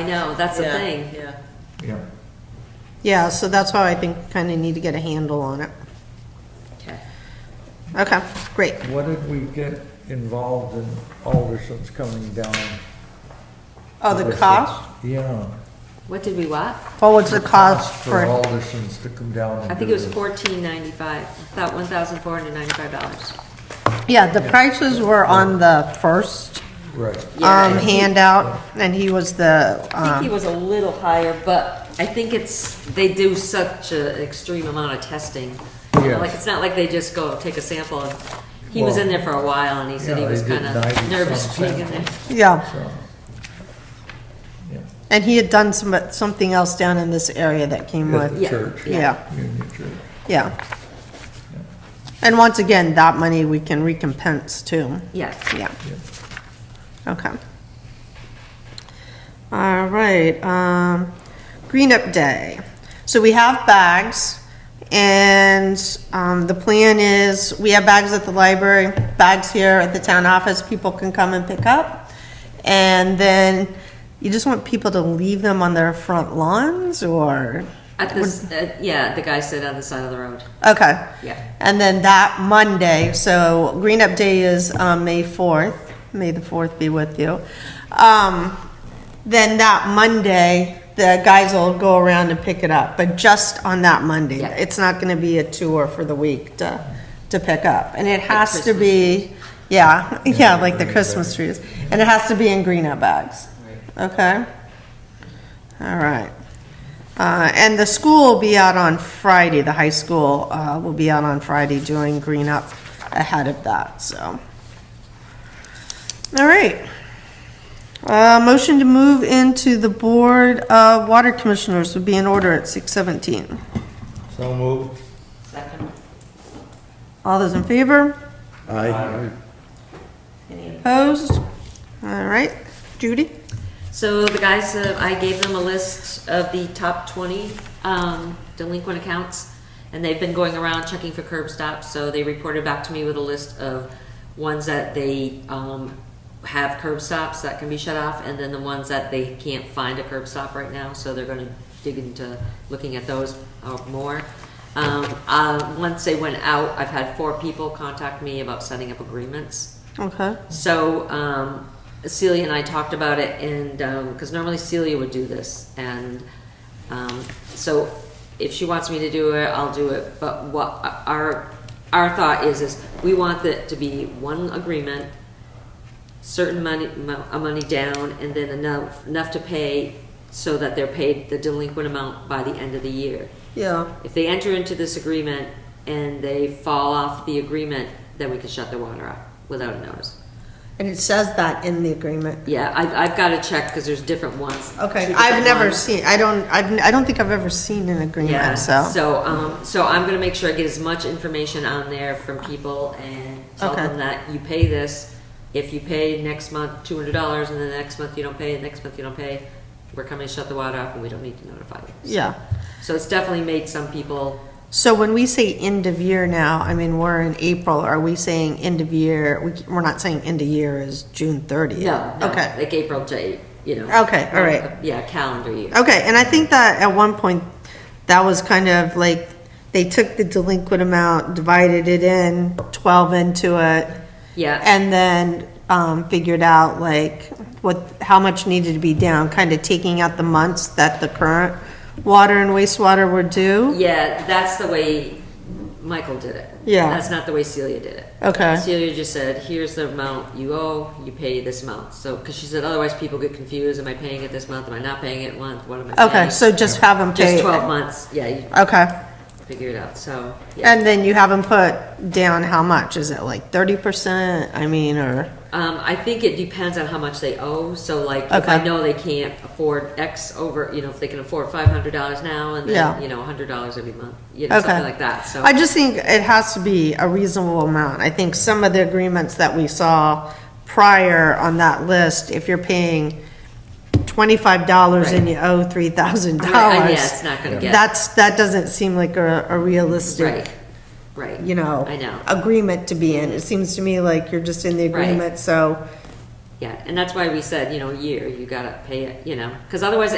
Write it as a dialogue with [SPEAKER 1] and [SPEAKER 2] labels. [SPEAKER 1] I know, that's the
[SPEAKER 2] Yeah,
[SPEAKER 1] thing.
[SPEAKER 2] Yeah.
[SPEAKER 3] Yeah.
[SPEAKER 4] Yeah, so that's why I think kind of need to get a handle on it.
[SPEAKER 1] Okay.
[SPEAKER 4] Okay, great.
[SPEAKER 3] What did we get involved in Alderson's coming down?
[SPEAKER 4] Oh, the
[SPEAKER 3] Alderson's-
[SPEAKER 4] cost?
[SPEAKER 3] Yeah.
[SPEAKER 1] What did we what?
[SPEAKER 4] What was the cost
[SPEAKER 3] For
[SPEAKER 4] for,
[SPEAKER 3] Alderson's to come down
[SPEAKER 1] I
[SPEAKER 3] and do
[SPEAKER 1] think it was
[SPEAKER 3] this.
[SPEAKER 1] fourteen ninety-five, about one thousand four hundred ninety-five dollars.
[SPEAKER 3] Uh-huh.
[SPEAKER 4] yeah, the prices were on the first
[SPEAKER 3] Right.
[SPEAKER 4] um, handout, and he was the,
[SPEAKER 1] I think he
[SPEAKER 4] um,
[SPEAKER 1] was a little higher, but I think it's, they do such an extreme amount of testing. You know,
[SPEAKER 3] Yes.
[SPEAKER 1] Like, it's not like they just go take a sample. and He was in there for a while and he said he
[SPEAKER 3] Yeah, they
[SPEAKER 1] was
[SPEAKER 3] did
[SPEAKER 1] kind of
[SPEAKER 3] 90
[SPEAKER 1] nervous
[SPEAKER 3] some
[SPEAKER 1] being in there.
[SPEAKER 4] yeah,
[SPEAKER 3] So, yeah,
[SPEAKER 4] and he had done some, something else down in this area that came
[SPEAKER 3] At
[SPEAKER 4] with,
[SPEAKER 3] the
[SPEAKER 1] Yeah.
[SPEAKER 3] church.
[SPEAKER 4] Yeah.
[SPEAKER 3] Union Church.
[SPEAKER 4] yeah. And once again, that money we can recompense too,
[SPEAKER 1] Yeah.
[SPEAKER 4] yeah,
[SPEAKER 3] yeah.
[SPEAKER 4] okay. All right, um, Green Up Day. So we have bags, and, um, the plan is, we have bags at the library, bags here at the town office, people can come and pick up. And then, you just want people to leave them on their front lawns, or?
[SPEAKER 1] At this, uh, yeah, the guy said on the side of the road.
[SPEAKER 4] Okay.
[SPEAKER 1] Yeah.
[SPEAKER 4] And then that Monday, so Green Up Day is um, May 4th. May the 4th be with you. Um, Then that Monday, the guys will go around and pick it up, but just on that Monday.
[SPEAKER 1] Yeah.
[SPEAKER 4] It's not going to be a tour for the week to, to pick up. And it has to
[SPEAKER 1] Christmas.
[SPEAKER 4] be, yeah, yeah, like the
[SPEAKER 3] green
[SPEAKER 4] Christmas trees. And it has to be in Green Up bags. Okay? All right. Uh, And the school will be out on Friday, the high school uh, will be out on Friday doing green up ahead of that, so. All right. Uh, Motion to move into the Board of Water Commissioners would be in order at 6:17.
[SPEAKER 3] So moved.
[SPEAKER 1] Second.
[SPEAKER 4] All those in favor?
[SPEAKER 3] Aye.
[SPEAKER 4] Opposed? All right. Judy?
[SPEAKER 1] So the guys, uh, I gave them a list of the top 20 um, delinquent accounts, and they've been going around checking for curb stops, so they reported back to me with a list of ones that they um, have curb stops that can be shut off, and then the ones that they can't find a curb stop right now, so they're gonna dig into looking at those uh, more. Um, uh, Once they went out, I've had four people contact me about setting up agreements.
[SPEAKER 4] Okay.
[SPEAKER 1] So um, Celia and I talked about it, and, because normally Celia would do this, and um, so if she wants me to do it, I'll do it, but what, our, our thought is, is we want it to be one agreement, certain money, mo- a money down, and then enough, enough to pay so that they're paid the delinquent amount by the end of the year.
[SPEAKER 4] Yeah.
[SPEAKER 1] If they enter into this agreement and they fall off the agreement, then we can shut their water off without a notice.
[SPEAKER 4] And it says that in the agreement.
[SPEAKER 1] Yeah, I've, I've got to check because there's different ones. two
[SPEAKER 4] Okay.
[SPEAKER 1] different
[SPEAKER 4] I've never
[SPEAKER 1] ones.
[SPEAKER 4] seen, I don't, I've, I don't think I've ever seen an
[SPEAKER 1] Yeah,
[SPEAKER 4] agreement,
[SPEAKER 1] so, um, so I'm gonna make sure I get as much information on there from people and tell
[SPEAKER 4] Okay.
[SPEAKER 1] them that you pay this. If you pay next month two hundred dollars and then the next month you don't pay, and next month you don't pay, we're coming to shut the water off and we don't need to notify you.
[SPEAKER 4] Yeah.
[SPEAKER 1] So it's definitely made some people,
[SPEAKER 4] So when we say end of year now, I mean, we're in April, are we saying end of year, we- we're not saying end of year is June 30th?
[SPEAKER 1] no, no,
[SPEAKER 4] Okay,
[SPEAKER 1] like April to, you know. Uh,
[SPEAKER 4] Okay, all right.
[SPEAKER 1] Yeah, calendar year.
[SPEAKER 4] okay, and I think that at one point, that was kind of like, they took the delinquent amount, divided it in, 12 into it,
[SPEAKER 1] Yeah,
[SPEAKER 4] and then um, figured out like what, how much needed to be down, kind of taking out the months that the current water and wastewater were due?
[SPEAKER 1] yeah, that's the way Michael did it.
[SPEAKER 4] Yeah.
[SPEAKER 1] That's not the way Celia did it.
[SPEAKER 4] Okay.
[SPEAKER 1] Celia just said, here's the amount you owe, you pay this amount. So, because she said otherwise people get confused, am I paying it this month, am I not paying it month, what am I paying?
[SPEAKER 4] Okay, so just have them pay.
[SPEAKER 1] Just twelve months, yeah, you
[SPEAKER 4] Okay.
[SPEAKER 1] figure it out, so. yeah.
[SPEAKER 4] And then you haven't put down how much, is it like thirty percent, I mean, or,
[SPEAKER 1] Um, I think it depends on how much they owe, so like, if I
[SPEAKER 4] Okay.
[SPEAKER 1] know they can't afford X over, you know, if they can afford five hundred dollars now and
[SPEAKER 4] Yeah.
[SPEAKER 1] then, you know, a hundred dollars every month, you know,
[SPEAKER 4] okay.
[SPEAKER 1] something like that, so.
[SPEAKER 4] I just think it has to be a reasonable amount, I think some of the agreements that we saw prior on that list, if you're paying twenty-five dollars and
[SPEAKER 1] Right.
[SPEAKER 4] you owe three thousand
[SPEAKER 1] I mean, I-
[SPEAKER 4] dollars.
[SPEAKER 1] Yeah, it's not gonna get,
[SPEAKER 4] That's, that doesn't seem like a, a realistic,
[SPEAKER 1] right, right.
[SPEAKER 4] you know.
[SPEAKER 1] I know.
[SPEAKER 4] Agreement to be in, it seems to me like you're just in the
[SPEAKER 1] Right.
[SPEAKER 4] agreement, so
[SPEAKER 1] Yeah, and that's why we said, you know, a year, you gotta pay it, you know, because otherwise